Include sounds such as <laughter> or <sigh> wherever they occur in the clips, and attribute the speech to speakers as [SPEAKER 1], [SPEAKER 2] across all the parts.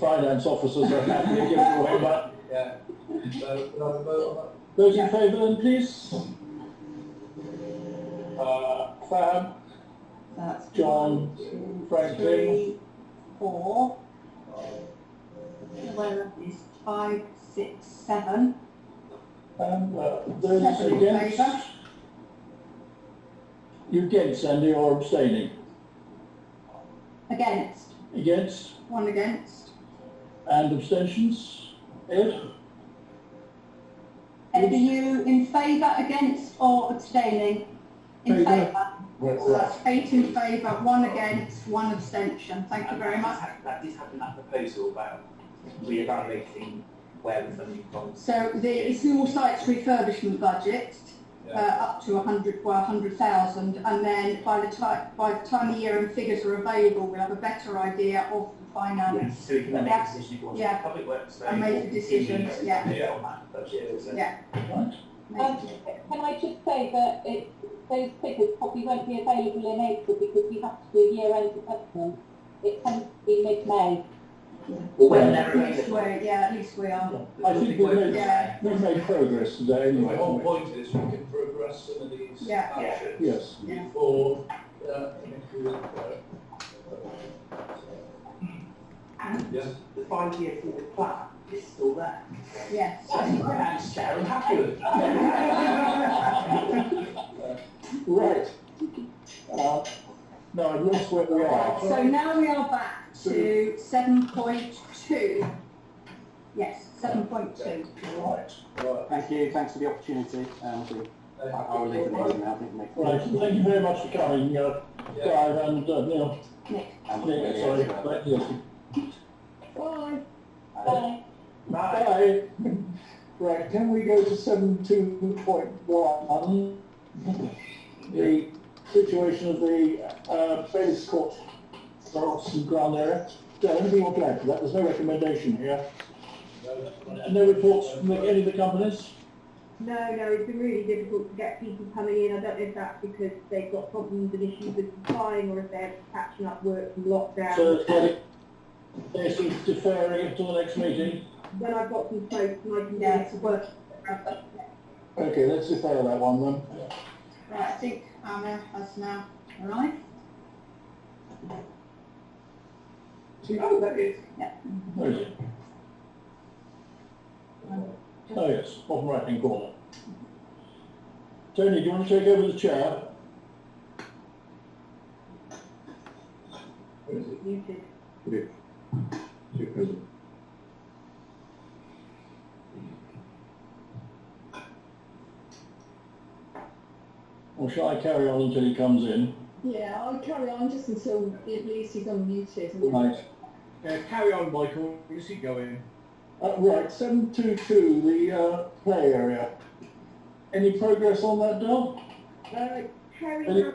[SPEAKER 1] finance officers are happy to give it away, but Uh,
[SPEAKER 2] Yeah. So, can I have a vote
[SPEAKER 1] those in favour then, please? Uh, Fab,
[SPEAKER 3] That's
[SPEAKER 1] John,
[SPEAKER 3] one, two,
[SPEAKER 1] Franklin.
[SPEAKER 3] three, four,
[SPEAKER 2] on that?
[SPEAKER 3] where is five, six, seven,
[SPEAKER 1] and uh, those
[SPEAKER 3] seven in
[SPEAKER 1] against?
[SPEAKER 3] favour.
[SPEAKER 1] You against, Andy, or abstaining?
[SPEAKER 3] Against,
[SPEAKER 1] Against
[SPEAKER 3] one against,
[SPEAKER 1] and abstentions? Ed?
[SPEAKER 3] Ed, are you in favour, against or abstaining? In
[SPEAKER 1] Favour.
[SPEAKER 3] favour, so
[SPEAKER 1] Right.
[SPEAKER 3] that's eight in favour, one against, one abstention, thank you very much.
[SPEAKER 2] That did happen, that proposal about reevaluating where the funding comes.
[SPEAKER 3] So the small sites refurbishment budget, uh,
[SPEAKER 2] Yeah.
[SPEAKER 3] up to 100, well, 100,000, and then by the time, by the time the year-end figures are available, we'll have a better idea of the finance.
[SPEAKER 2] So we can then make a decision if we want to
[SPEAKER 3] Yeah.
[SPEAKER 2] public works.
[SPEAKER 3] And make a decision, yeah.
[SPEAKER 2] On that budget, so.
[SPEAKER 3] Yeah.
[SPEAKER 1] Right.
[SPEAKER 4] Um, Can I just say that it, those figures probably won't be available in April because we have to do a year-end assessment. It tends to be mid-May.
[SPEAKER 1] when
[SPEAKER 2] Well, when
[SPEAKER 1] they're
[SPEAKER 2] they're
[SPEAKER 3] At least we're, yeah, at least we are.
[SPEAKER 1] I think we've made,
[SPEAKER 3] Yeah.
[SPEAKER 1] we've made progress today anyway.
[SPEAKER 5] The
[SPEAKER 1] haven't
[SPEAKER 5] whole
[SPEAKER 1] we?
[SPEAKER 5] point is we can progress some of these
[SPEAKER 3] Yeah.
[SPEAKER 5] actions
[SPEAKER 1] Yes.
[SPEAKER 3] Yeah.
[SPEAKER 5] before, uh, into, uh,
[SPEAKER 2] And
[SPEAKER 5] Yeah.
[SPEAKER 2] the five-year forward plan is still there.
[SPEAKER 3] Yes.
[SPEAKER 2] That's fair and happy with
[SPEAKER 1] Right. Uh, No, I've lost where we are.
[SPEAKER 3] So now we are back to 7.2. Yes, 7.2.
[SPEAKER 1] Right.
[SPEAKER 5] right.
[SPEAKER 6] Thank you, thanks for the opportunity. Um, we- I- I'll leave the meeting now, I think, Nick.
[SPEAKER 1] Right, thank you very much for coming, uh,
[SPEAKER 5] Yeah.
[SPEAKER 1] Clive and uh, Neil.
[SPEAKER 3] Nick.
[SPEAKER 6] And we'll
[SPEAKER 1] Yeah,
[SPEAKER 6] really-
[SPEAKER 1] sorry, but yes. Bye.
[SPEAKER 6] Uh,
[SPEAKER 4] So
[SPEAKER 2] Right.
[SPEAKER 1] Bye. Right, can we go to seven two point one? The situation of the, uh, Bailey's Court, Ross and Ground area. Does anybody want to add to that? There's no recommendation here. And no reports from the- uh, any of the companies?
[SPEAKER 7] No, no, it's been really difficult to get people coming in. I don't know if that's because they've got problems and issues with supplying or if they're catching up work from
[SPEAKER 3] Um,
[SPEAKER 7] lockdown.
[SPEAKER 1] So it's like, they're sort of deferring it till the next meeting.
[SPEAKER 7] when I've got some folks and I can
[SPEAKER 3] Yeah,
[SPEAKER 7] get
[SPEAKER 3] it's
[SPEAKER 7] to
[SPEAKER 3] a
[SPEAKER 7] work.
[SPEAKER 3] work. Right,
[SPEAKER 1] Okay, let's defer that one then.
[SPEAKER 3] I think Anna has now arrived.
[SPEAKER 2] Oh, that is.
[SPEAKER 1] Where is it? Oh, yes, bottom right-hand corner. Tony, do you want to take over the chair?
[SPEAKER 5] Where is it?
[SPEAKER 7] Muted.
[SPEAKER 5] Two present.
[SPEAKER 1] Or shall I carry on until he comes in?
[SPEAKER 7] Yeah, I'll carry on just until at least he's unmuted.
[SPEAKER 1] Right.
[SPEAKER 5] carry on, Michael, you see going.
[SPEAKER 1] Uh, right, seven two two, the, uh, play area. Any progress on that, Del?
[SPEAKER 7] Uh, Terry
[SPEAKER 1] Any-
[SPEAKER 7] has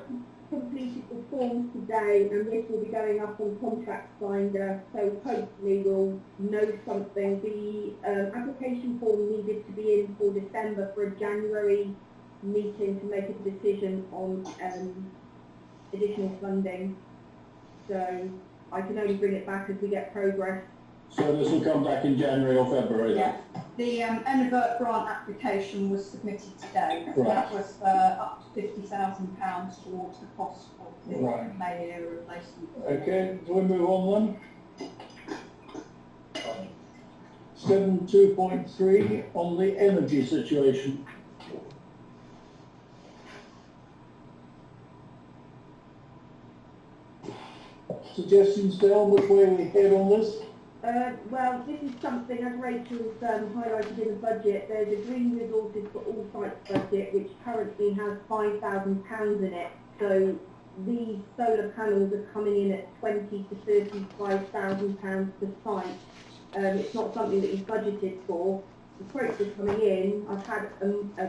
[SPEAKER 7] completed the form today and this will be going up on contract finder, so hopefully we'll know something. The um, application form needed to be in for December for a January meeting to make a decision on um, additional funding. So I can only bring it back as we get progress.
[SPEAKER 1] So this will come back in January or February then?
[SPEAKER 3] Yeah, the um, Envert grant application was submitted today.
[SPEAKER 1] Right.
[SPEAKER 3] That was uh, up to fifty thousand pounds towards the cost of the
[SPEAKER 1] Right.
[SPEAKER 3] Mayo replacement.
[SPEAKER 1] Okay, do we move on then? Seven two point three, on the energy situation. Suggestions, Del, which way we head on this?
[SPEAKER 7] Uh, well, this is something, as Rachel's um, highlighted in the budget, there's a green resources for all sites budget, which currently has £5,000 in it. So these solar panels are coming in at twenty to £35,000 per site. Um, it's not something that you've budgeted for. The quotes are coming in. I've had um, a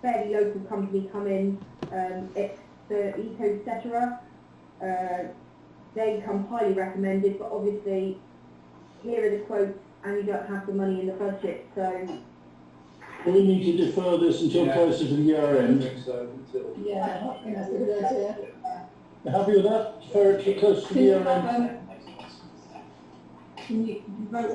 [SPEAKER 7] fairly local company come in, um, it's the Eco Cetera. Uh, they come highly recommended, but obviously here are the quotes, and you don't have the money in the budget, so.
[SPEAKER 1] We need to defer this until
[SPEAKER 5] Yeah.
[SPEAKER 1] closer to the year
[SPEAKER 5] I
[SPEAKER 1] end.
[SPEAKER 5] think so, until.
[SPEAKER 3] Yeah,
[SPEAKER 7] <laughs>
[SPEAKER 3] I think that's a good
[SPEAKER 7] idea. um,
[SPEAKER 1] Happy with that? Defer it to closer to the year end?
[SPEAKER 3] can you you wrote